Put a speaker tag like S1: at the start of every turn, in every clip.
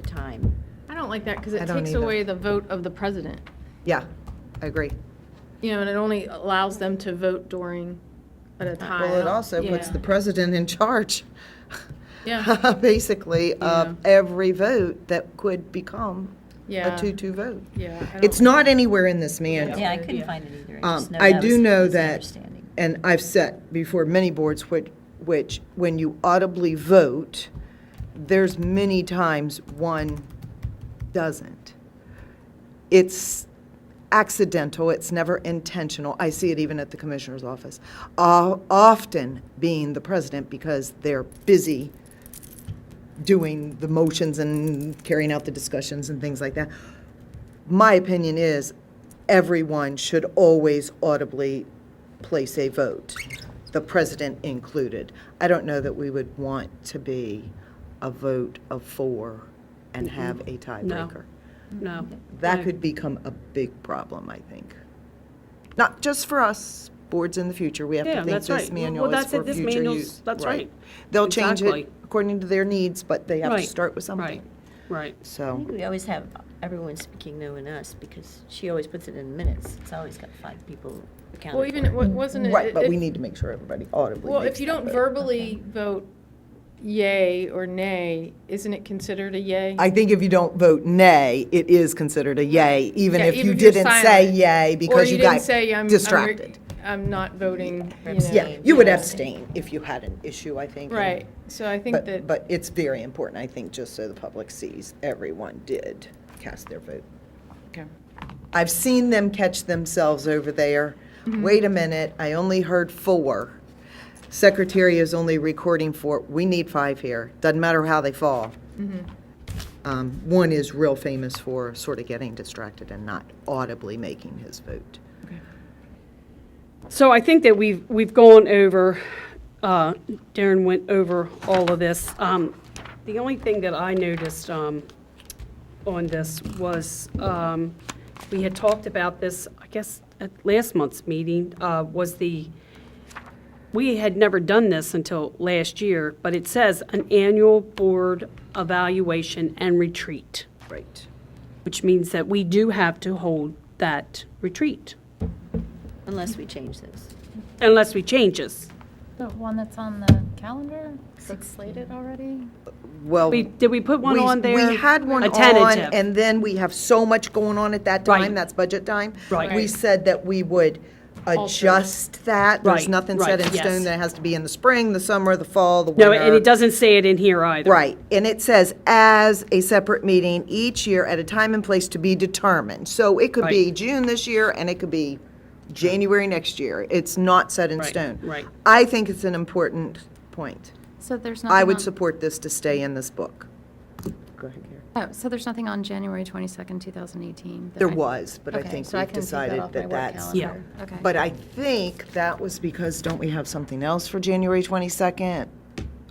S1: the time.
S2: I don't like that because
S3: I
S2: it
S3: don't
S2: takes
S3: either.
S2: away the vote of the president.
S3: Yeah, I agree.
S2: You know, and it only allows them to vote during at a time.
S3: Well, it also puts
S2: Yeah.
S3: the president in charge.
S2: Yeah.
S3: Basically,
S2: Yeah.
S3: of every vote that could become
S2: Yeah.
S3: a two-two vote.
S2: Yeah. I
S3: It's
S2: don't-
S3: not anywhere in this manual.
S4: Yeah, I couldn't find it either.
S3: Um,
S4: just know
S3: I
S4: that
S3: do
S4: was
S3: know
S4: his
S3: that-
S4: understanding.
S3: and I've said before many boards, which, which, when you audibly vote, there's many times one doesn't. It's accidental, it's never intentional. I see it even at the commissioner's office. O- Often being the president because they're busy doing the motions and carrying out the discussions and things like that. My opinion is everyone should always audibly place a vote, the president included. I don't know that we would want to be a vote of four and have a tiebreaker.
S5: No. Mm.
S3: That could become a big problem, I think. Not just for us, boards in the future, we have
S5: Yeah,
S3: to think
S5: that's
S3: this
S5: right. Well,
S3: manual is
S5: that's it.
S3: for
S5: This
S3: future
S5: manual's-
S3: use.
S5: that's right.
S3: They'll change
S5: Exactly.
S3: it according to their needs, but they have to
S5: Right,
S3: start with something.
S5: Right, right.
S4: I
S3: So,
S4: think we always have everyone speaking no and us because she always puts it in minutes. It's always got five people
S2: Well,
S4: accounted
S2: even,
S4: for.
S2: wa- wasn't it?
S3: Mm-hmm. right, but
S2: it-
S3: we need to make sure everybody audibly
S2: Well,
S3: makes
S2: if you
S3: that
S2: don't
S3: vote.
S2: verbally vote yay or nay, isn't it considered a yay?
S3: I think if you don't vote nay, it is considered a yay, even
S2: Yeah,
S3: if you
S2: you're
S3: didn't say
S2: silent.
S3: yay because
S2: or
S3: you
S2: didn't
S3: got
S2: say, um, I'm,
S3: distracted.
S2: I'm, re- I'm not voting. You know.
S3: Yeah,
S4: Abstain.
S3: you would
S4: Yeah.
S3: abstain if you had an issue, I think. and-
S2: Right. So I think
S3: But,
S2: that.
S3: but it's very important, I think, just so the public sees, everyone did cast their vote. I've seen them catch themselves over there.
S2: Mm-hmm.
S3: Wait a minute, I only heard four. Secretary is only recording four. We need five here. Doesn't matter how they fall.
S2: Mm-hmm.
S3: Um, One is real famous for sort of getting distracted and not audibly making his vote.
S5: So I think that we've, we've gone over, uh, Darren went over all of this. Um, The only thing that I noticed um, on this was, um, we had talked about this, I guess, at last month's meeting, uh, was the, we had never done this until last year, but it says an annual board evaluation and retreat,
S3: Right.
S5: which means that we do have to hold that retreat,
S4: Unless we change this.
S5: unless we change this.
S6: The one that's on the calendar, that's slated already?
S3: Well.
S5: We, did we put one
S3: We-
S5: on there?
S3: We had one
S5: A
S3: on,
S5: tentative.
S3: and then we have so much going on at that time,
S5: Right.
S3: that's budget time.
S5: Right.
S3: We
S2: Right.
S3: said that we would adjust that. There's
S5: Right,
S3: nothing set
S5: right,
S3: in stone
S5: yes.
S3: that it has to be in the spring, the summer, the fall, the winter.
S5: No, and it doesn't say it in here either.
S3: Right, and it says as a separate meeting each year at a time and place to be determined. So it could be
S5: Right.
S3: June this year and it could be January next year. It's not set in
S5: Right,
S3: stone.
S5: right.
S3: I think it's an important point.
S6: So there's nothing on...
S3: I would support this to stay in this book. Go ahead, Karen.
S6: Oh, so there's nothing on January 22nd, 2018? that
S3: There
S6: I-
S3: was, but I
S6: Okay,
S3: think
S6: so I
S3: we've
S6: can take
S3: decided
S6: off my
S3: that
S6: work
S3: that's.
S5: Yeah.
S6: calendar. Okay.
S3: But I think that was because, don't we have something else for January 22nd?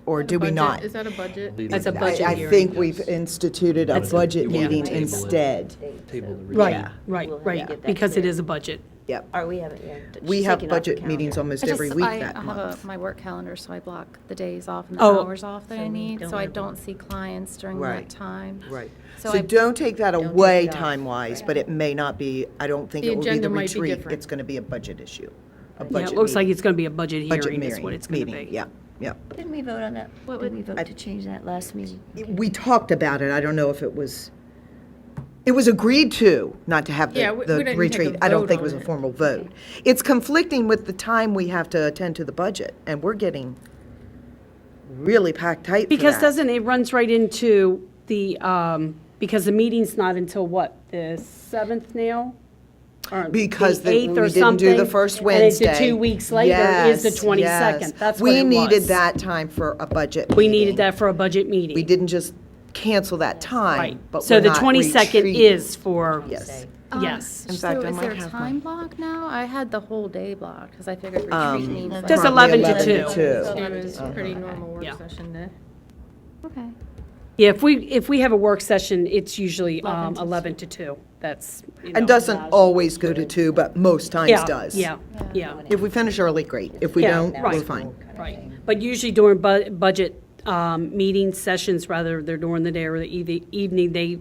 S3: Or do we
S2: Budget-
S3: not?
S2: Is that a budget?
S5: That's a
S3: I-
S5: budget
S3: I
S5: hearing.
S3: think we've instituted a budget
S7: You wanna
S3: meeting
S7: table it.
S3: instead.
S7: Table the
S5: Right,
S3: Yeah.
S5: right,
S4: We'll have to get
S5: right,
S4: that
S5: because it
S4: clear.
S5: is a budget.
S3: Yep.
S4: Or we haven't yet.
S3: We
S4: She's
S3: have
S4: taken off the
S3: budget meetings
S4: calendar.
S3: almost
S6: I
S3: every
S6: just-
S3: week
S6: I-
S3: that
S6: I have
S3: month.
S6: a- my work calendar, so I block the days off and the
S5: Oh.
S6: hours off that
S4: So
S6: I
S4: we
S6: need,
S4: don't
S6: so I
S4: have-
S6: don't see clients during
S3: Right.
S6: that time.
S3: Right.
S6: So
S3: So
S6: I-
S3: don't take that away
S4: off.
S3: time-wise, but it may not be, I don't think
S2: The
S3: it will be the
S2: agenda might be
S3: retreat.
S2: different.
S3: It's going to be a budget issue. A
S5: Yeah,
S3: budget
S5: it looks like
S3: meeting-
S5: it's going to be a budget
S3: budget
S5: hearing is what
S3: meeting-
S5: it's going to
S3: meeting.
S5: be.
S3: Yep, yep.
S4: Didn't we vote on that?
S6: What
S4: Did
S6: would-
S4: we vote to change that last meeting?
S3: we talked about it, I don't know if it was, it was agreed to not to have
S2: Yeah, we-
S3: the-
S2: we
S3: the
S2: didn't
S3: retreat.
S2: take a
S3: I don't
S2: vote
S3: think it was a
S2: on it.
S3: formal vote. It's conflicting with the time we have to attend to the budget, and we're getting really packed tight for
S5: Because
S3: that.
S5: doesn't, it runs right into the, um, because the meeting's not until what, the 7th now? Or
S3: Because the-
S5: eighth or
S3: we didn't do the
S5: something,
S3: first
S5: And it's the
S3: Wednesday.
S5: two weeks later
S3: Yes,
S5: is the
S3: yes.
S5: 22nd. That's what it
S3: We needed
S5: was.
S3: that time for a budget
S5: We
S3: meeting.
S5: needed that for a budget meeting.
S3: We didn't just cancel that time,
S5: Right.
S3: but
S5: So
S3: we're
S5: the
S3: not
S5: 22nd
S3: retreating.
S5: is for,
S3: Yes.
S4: Uh,
S6: Um,
S5: yes.
S3: In fact, I might
S6: So is
S3: have
S6: there a
S3: my-
S6: time block now? I had the whole day blocked, because I figured
S3: Um,
S6: retreat needs... like-
S5: Just
S3: Probably
S5: 11 to
S3: 11 to 2.
S2: It was a pretty normal
S5: Yeah.
S2: work session day.
S6: Okay.
S5: Yeah, if we, if we have a work session, it's usually um, 11 to 2. That's, you know,
S3: And doesn't always go to two, but most times
S5: yeah,
S3: does.
S5: Yeah, yeah,
S3: If we finish early, great. If we
S5: Yeah,
S3: don't, we're
S5: right.
S3: fine.
S5: right. But usually during bu- budget um, um, meeting sessions, rather, they're during the day or the eve- evening, they